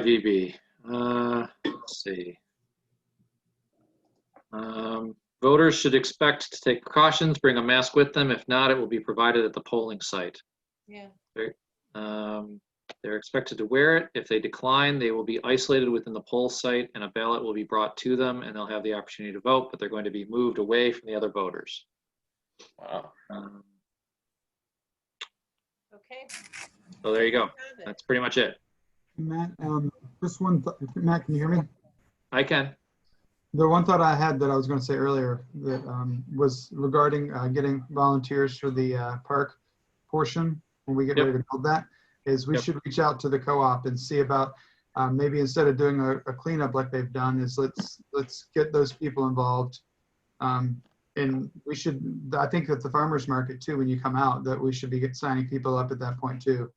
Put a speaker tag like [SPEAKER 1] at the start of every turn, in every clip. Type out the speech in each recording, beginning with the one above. [SPEAKER 1] WIVB, uh, let's see. Um, Voters should expect to take precautions, bring a mask with them. If not, it will be provided at the polling site.
[SPEAKER 2] Yeah.
[SPEAKER 1] Um, They're expected to wear it. If they decline, they will be isolated within the poll site and a ballot will be brought to them and they'll have the opportunity to vote, but they're going to be moved away from the other voters.
[SPEAKER 3] Wow.
[SPEAKER 1] Um,
[SPEAKER 2] Okay.
[SPEAKER 1] So there you go.
[SPEAKER 2] have it.
[SPEAKER 1] That's pretty much it.
[SPEAKER 4] Matt, um, just one, th- Matt, can you hear me?
[SPEAKER 1] I can.
[SPEAKER 4] The one thought I had that I was going to say earlier that um, was regarding uh, getting volunteers for the uh, park portion when we get
[SPEAKER 1] Yep.
[SPEAKER 4] ready to build that is we
[SPEAKER 1] Yep.
[SPEAKER 4] should reach out to the co-op and see about uh, maybe instead of doing a, a cleanup like they've done is let's let's get those people involved um, and we should I think that the farmers market too when you come out that we should be get, signing people up at that point too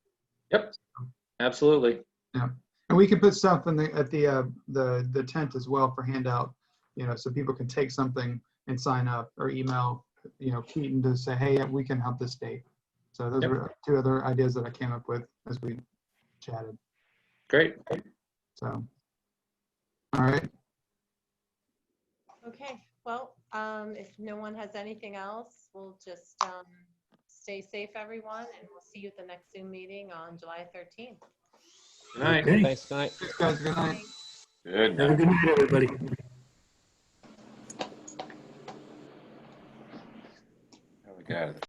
[SPEAKER 1] Absolutely.
[SPEAKER 4] And we can put stuff in the, at the, uh, the, the tent as well for handout, you know, so people can take something and sign up or email, you know, Keaton to say, hey, we can help this date. So those
[SPEAKER 1] Yep.
[SPEAKER 4] were two other ideas that I came up with as we chatted,
[SPEAKER 1] Great.
[SPEAKER 4] so. All right,
[SPEAKER 2] Okay, well, um, if no one has anything else, we'll just, um, stay safe, everyone, and we'll see you at the next Zoom meeting on July 13th.
[SPEAKER 1] All right.
[SPEAKER 5] Thanks, good night.
[SPEAKER 4] thanks guys, good night.
[SPEAKER 3] Good.
[SPEAKER 5] Have a good night, everybody.
[SPEAKER 3] Oh, we got it.